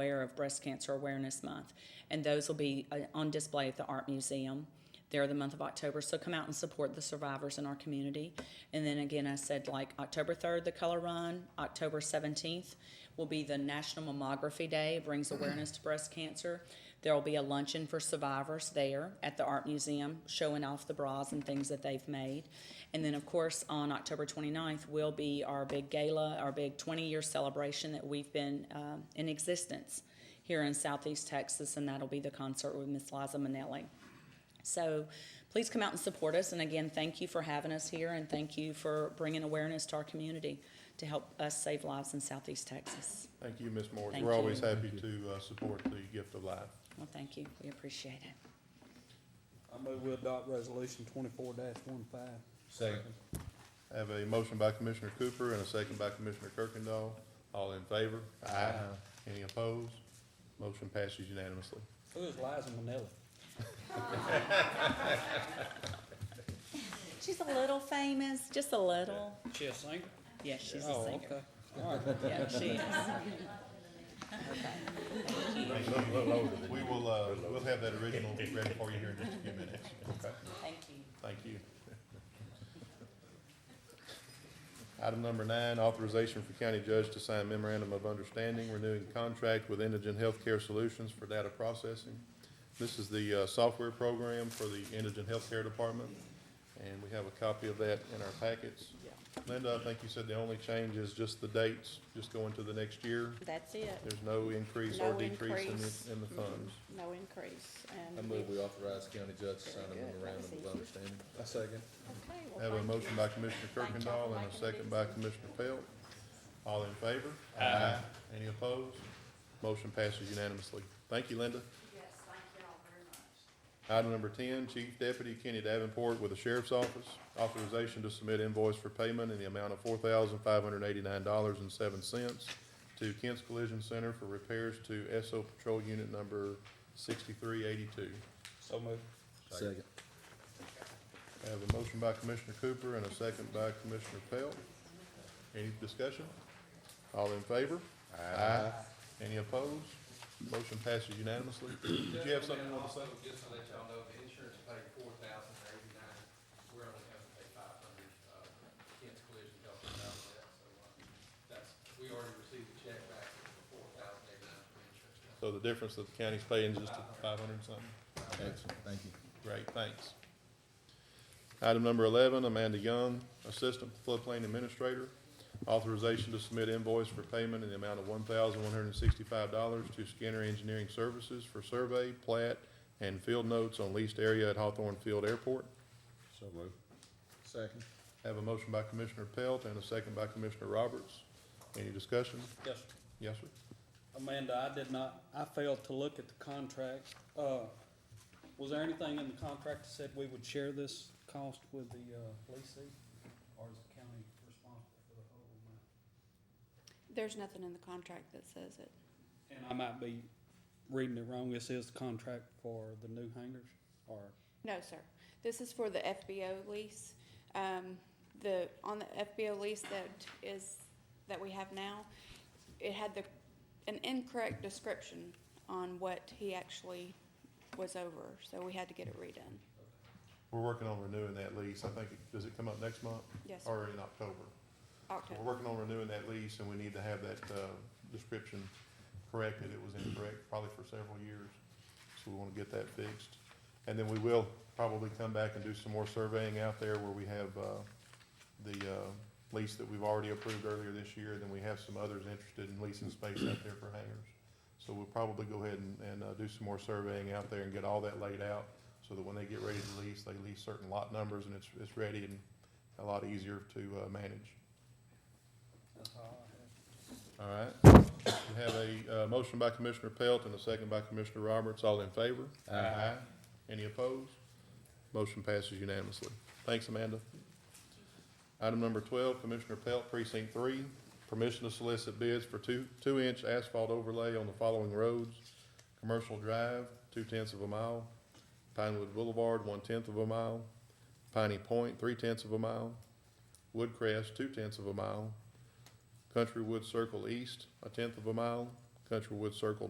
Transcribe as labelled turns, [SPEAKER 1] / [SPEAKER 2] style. [SPEAKER 1] aware of Breast Cancer Awareness Month, and those will be uh, on display at the Art Museum there the month of October. So come out and support the survivors in our community. And then again, I said like October 3rd, the Color Run, October 17th will be the National Mammography Day, It brings awareness to breast cancer. There'll be a luncheon for survivors there at the Art Museum, showing off the bras and things that they've made. And then, of course, on October 29th will be our big gala, our big 20 year celebration that we've been um, in existence here in Southeast Texas, and that'll be the concert with Miss Liza Minnelli. So please come out and support us. And again, thank you for having us here and thank you for bringing awareness to our community to help us save lives in Southeast Texas.
[SPEAKER 2] Thank you, Ms. Morris.
[SPEAKER 1] Thank
[SPEAKER 2] We're always
[SPEAKER 1] you.
[SPEAKER 2] happy to uh, support the gift of life.
[SPEAKER 1] Well, thank you. We appreciate it.
[SPEAKER 3] I move we adopt resolution twenty-four dash one five.
[SPEAKER 4] Second.
[SPEAKER 2] I have a motion by Commissioner Cooper and a second by Commissioner Kirkendall. All in favor? Aye. Any opposed? Motion passes unanimously.
[SPEAKER 3] Who is Liza Minnelli?
[SPEAKER 1] She's a little famous, just a little.
[SPEAKER 3] She a singer?
[SPEAKER 1] Yeah, she's a
[SPEAKER 3] Oh,
[SPEAKER 1] singer.
[SPEAKER 3] okay. All right.
[SPEAKER 1] Yeah, she is.
[SPEAKER 2] We will, uh, we'll have that original ready for you here in just a few minutes. Okay,
[SPEAKER 1] Thank you.
[SPEAKER 2] thank you. Item number nine, authorization for county judge to sign memorandum of understanding renewing contract with Indigent Healthcare Solutions for data processing. This is the, uh, software program for the Indigent Healthcare Department, and we have a copy of that in our packets. Linda, I think you said the only change is just the dates, just going to the next year.
[SPEAKER 5] That's it,
[SPEAKER 2] There's no increase or
[SPEAKER 5] No
[SPEAKER 2] decrease in
[SPEAKER 5] increase. Mm-hmm.
[SPEAKER 2] the, in the funds.
[SPEAKER 5] no increase,
[SPEAKER 4] I
[SPEAKER 5] and we,
[SPEAKER 4] move we
[SPEAKER 5] okay,
[SPEAKER 4] authorize county judge to sign a memorandum of understanding. I second.
[SPEAKER 2] I
[SPEAKER 5] well,
[SPEAKER 2] Have a
[SPEAKER 5] thank
[SPEAKER 2] motion
[SPEAKER 5] you.
[SPEAKER 2] by Commissioner
[SPEAKER 5] Thank y'all
[SPEAKER 2] Kirkendall and
[SPEAKER 5] for
[SPEAKER 2] a
[SPEAKER 5] making it
[SPEAKER 2] second by Commissioner Pelt. All in favor? Aye. Any opposed? Motion passes unanimously. Thank you, Linda. Item number ten, Chief Deputy Kenny Davenport with the Sheriff's Office, authorization to submit invoice for payment in the amount of four thousand five hundred eighty-nine dollars and seven cents to Kent's Collision Center for repairs to SO Patrol Unit Number sixty-three eighty-two.
[SPEAKER 3] So move.
[SPEAKER 4] Second.
[SPEAKER 2] I have a motion by Commissioner Cooper and a second by Commissioner Pelt. Any discussion? All in favor? Aye. Any opposed? Motion passes unanimously. Did you have something you wanted to say?
[SPEAKER 6] Also, just to let y'all know, the insurance paid four thousand eighty-nine, we're only having to pay five hundred, uh, against collision help us out with that, so, uh, that's, we already received the check back for four thousand eighty-nine for insurance.
[SPEAKER 2] So the difference that the county's paying is just five hundred and something?
[SPEAKER 4] Excellent, thank you.
[SPEAKER 2] Great, thanks. Item number eleven, Amanda Young, Assistant Floodplain Administrator. Authorization to submit invoice for payment in the amount of one thousand one hundred and sixty-five dollars to Skinner Engineering Services for survey, plat, and field notes on leased area at Hawthorne Field Airport.
[SPEAKER 4] So move. Second.
[SPEAKER 2] Have a motion by Commissioner Pelt and a second by Commissioner Roberts. Any discussion?
[SPEAKER 3] Yes, sir.
[SPEAKER 2] Yes, sir.
[SPEAKER 3] Amanda, I did not, I failed to look at the contract. Uh, was there anything in the contract that said we would share this cost with the, uh, leasing? Or is the county responsible for the whole amount?
[SPEAKER 5] There's nothing in the contract that says it.
[SPEAKER 3] And I might be reading it wrong. This is the contract for the new hangars or?
[SPEAKER 5] No, sir. This is for the FBO lease. Um, the, on the FBO lease that is, that we have now, it had the, an incorrect description on what he actually was over, so we had to get it redone.
[SPEAKER 2] We're working on renewing that lease. I think, it- does it come up next month
[SPEAKER 5] Yes, sir.
[SPEAKER 2] or in October?
[SPEAKER 5] October.
[SPEAKER 2] We're working on renewing that lease, and we need to have that, uh, description corrected, it was incorrect, probably for several years, so we wanna get that fixed. And then we will probably come back and do some more surveying out there where we have, uh, the, uh, lease that we've already approved earlier this year, then we have some others interested in leasing space out there for hangars. So we'll probably go ahead and, and, uh, do some more surveying out there and get all that laid out, so that when they get ready to lease, they lease certain lot numbers, and it's, it's ready and a lot easier to, uh, manage.
[SPEAKER 3] That's all I have.
[SPEAKER 2] All right. We have a, uh, motion by Commissioner Pelt and a second by Commissioner Roberts. All in favor? Aye. Any opposed? Motion passes unanimously. Thanks, Amanda. Item number twelve, Commissioner Pelt, precinct three, permission to solicit bids for two, two-inch asphalt overlay on the following roads. Commercial Drive, two-tenths of a mile. Pinewood Boulevard, one-tenth of a mile. Piney Point, three-tenths of a mile. Woodcrest, two-tenths of a mile. Country Wood Circle East, a tenth of a mile. Country Wood Circle